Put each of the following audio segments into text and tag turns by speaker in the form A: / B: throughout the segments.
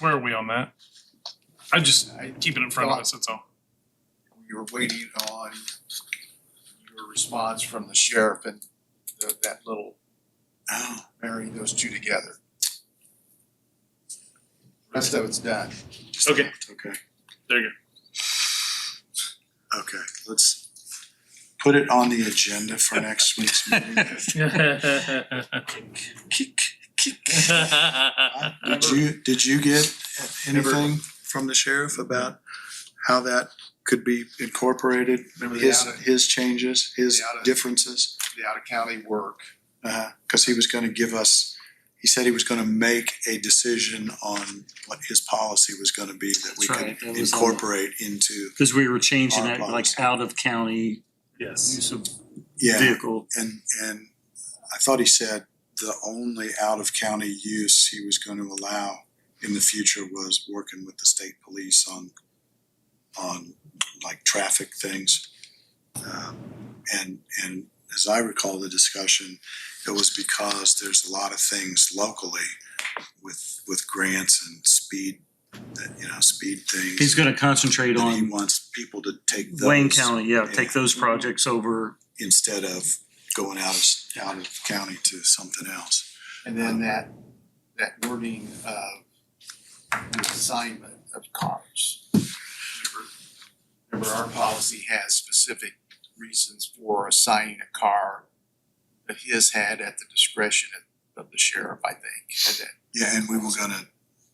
A: Where are we on that? I just keep it in front of us, that's all.
B: We were waiting on your response from the sheriff and the- that little, marrying those two together. Rest of it's done.
A: Okay,
C: Okay,
A: there you
C: okay, let's put it on the agenda for next week's meeting. Did you, did you get anything from the sheriff about how that could be incorporated?
B: Remember the
C: His,
B: outer-
C: his changes, his
B: The outer-
C: differences?
B: the out of county work.
C: Uh, cause he was gonna give us, he said he was gonna make a decision on what his policy was gonna be that we
D: That's
C: could
D: right, that was on the-
C: incorporate into,
D: Cause we were changing
C: Our
D: that like
C: policy.
D: out of county
A: Yes.
D: use of
C: yeah.
D: vehicle.
C: And, and I thought he said the only out of county use he was gonna allow in the future was working with the state police on, on like traffic things. Um, And, and as I recall the discussion, it was because there's a lot of things locally with, with grants and speed, that, you know, speed things.
D: He's gonna concentrate
C: That he
D: on
C: wants people to take those
D: Wayne County, yeah,
C: yeah.
D: take those projects over.
C: instead of going out of, out of county to something else.
B: And then that, that wording of the assignment of cars. Remember- Remember, our policy has specific reasons for assigning a car that his had at the discretion of, of the sheriff, I think, and that.
C: Yeah, and we were gonna,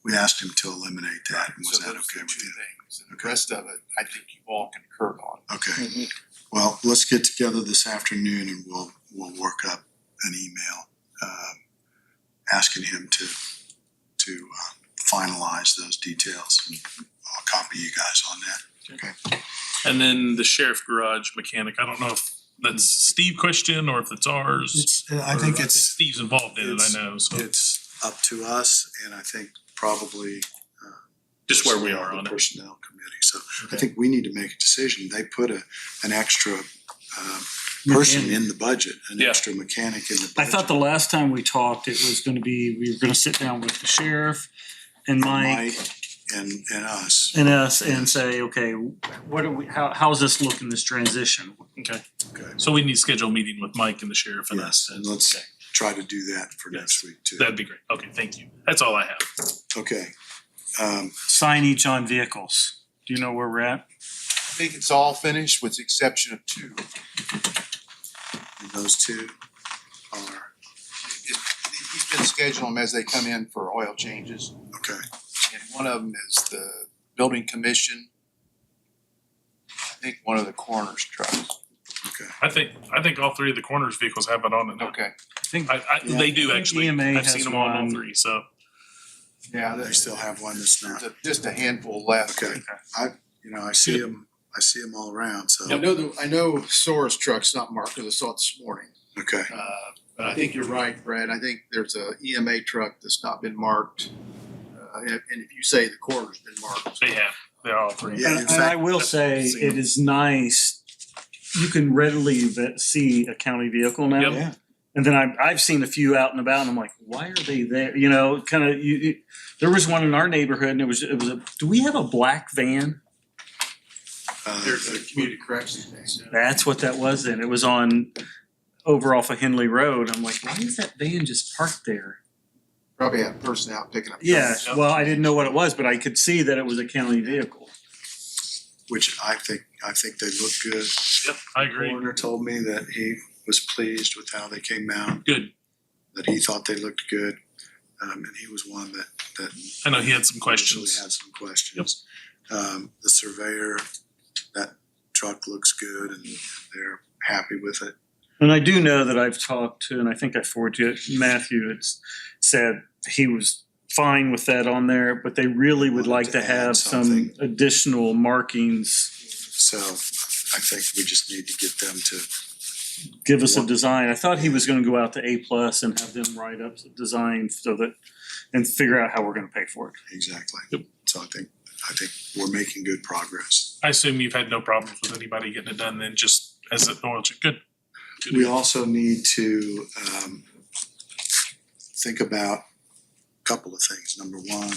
C: we asked him to eliminate that, and was
B: so
C: that
B: those are
C: okay
B: the
C: with
B: two
C: you?
B: things. And the rest of it, I think you all concurred on.
C: Okay, well, let's get together this afternoon and we'll, we'll work up an email, um, asking him to, to uh, finalize those details, and I'll copy you guys on that.
A: And then the sheriff garage mechanic, I don't know if that's Steve question or if it's ours.
C: It's, I
A: or
C: think it's,
A: Steve's involved in it, I
C: it's-
A: know, so
C: it's up to us, and I think probably
A: just where we
C: personnel,
A: are on
C: the
A: it.
C: Personnel committee, so I think we need to make a decision. They put a, an extra, um, person in the budget, an
A: Yeah.
C: extra mechanic in the
D: I
C: budget.
D: thought the last time we talked, it was gonna be, we were gonna sit down with the sheriff and Mike
C: And, and us.
D: and us and say, okay, what are we, how, how's this looking, this transition?
A: Okay,
C: Okay.
A: so we need to schedule a meeting with Mike and the sheriff and
C: Yes,
A: us.
C: and let's
A: Okay.
C: try to do that for
A: Yes.
C: next week too.
A: That'd be great. Okay, thank you. That's all I have.
C: Okay. Um,
D: Signage on vehicles. Do you know where we're at?
B: I think it's all finished with the exception of two.
C: and those two are,
B: It- He's been scheduling them as they come in for oil changes.
C: okay,
B: And one of them is the building commission. I think one of the coroner's trucks.
C: okay.
A: I think, I think all three of the corners vehicles have it on it. now.
B: Okay.
D: I think,
A: I, I, they do
D: Yeah.
A: actually.
D: EMA
A: I've
D: has
A: seen them on all
D: one.
A: three, so.
B: Yeah,
C: They
B: there's
C: still have one that's not,
B: a- just a handful left.
C: okay. I, you know, I see them, I see them all around, so,
B: I know, the- I know Sora's truck's not marked, because I saw it this morning.
C: okay.
B: Uh, But I think you're right, Brad. I think there's a EMA truck that's not been marked. Uh, And and if you say the coroner's been marked.
A: They have, they're all three.
C: Yeah, in
D: And and I
C: fact-
D: will say, it is nice, you can readily ve- see a county vehicle now.
A: Yep.
C: Yeah.
D: And then I, I've seen a few out and about and I'm like, why are they there? You know, kind of, you, you, there was one in our neighborhood and it was, it was a, do we have a black van?
C: Uh,
B: community corrections thing.
D: That's what that was then. It was on, over off of Henley Road. I'm like, why is that van just parked there?
B: Probably had a person out picking up.
D: Yeah,
B: trucks.
D: well, I didn't know what it was, but I could see that it was a county vehicle.
C: Which I think, I think they look good.
A: Yep, I agree.
C: Coroner told me that he was pleased with how they came out,
A: Good.
C: that he thought they looked good. Um, and he was one that, that.
A: I know he had some
C: initially
A: questions.
C: Had some questions. Um, the surveyor, that truck looks good and they're happy with it.
D: And I do know that I've talked to, and I think I forwarded it, Matthew, it's said he was fine with that on there, but they really would like to have some additional markings.
C: So I think we just need to get them to,
D: Give us a design. I thought he was gonna go out to A plus and have them write up the design so that, and figure out how we're gonna pay for it.
C: exactly.
A: Yep.
C: So I think, I think we're making good progress.
A: I assume you've had no problems with anybody getting it done then just as an oil change. Good. Good.
C: We also need to, um, think about a couple of things. Number one,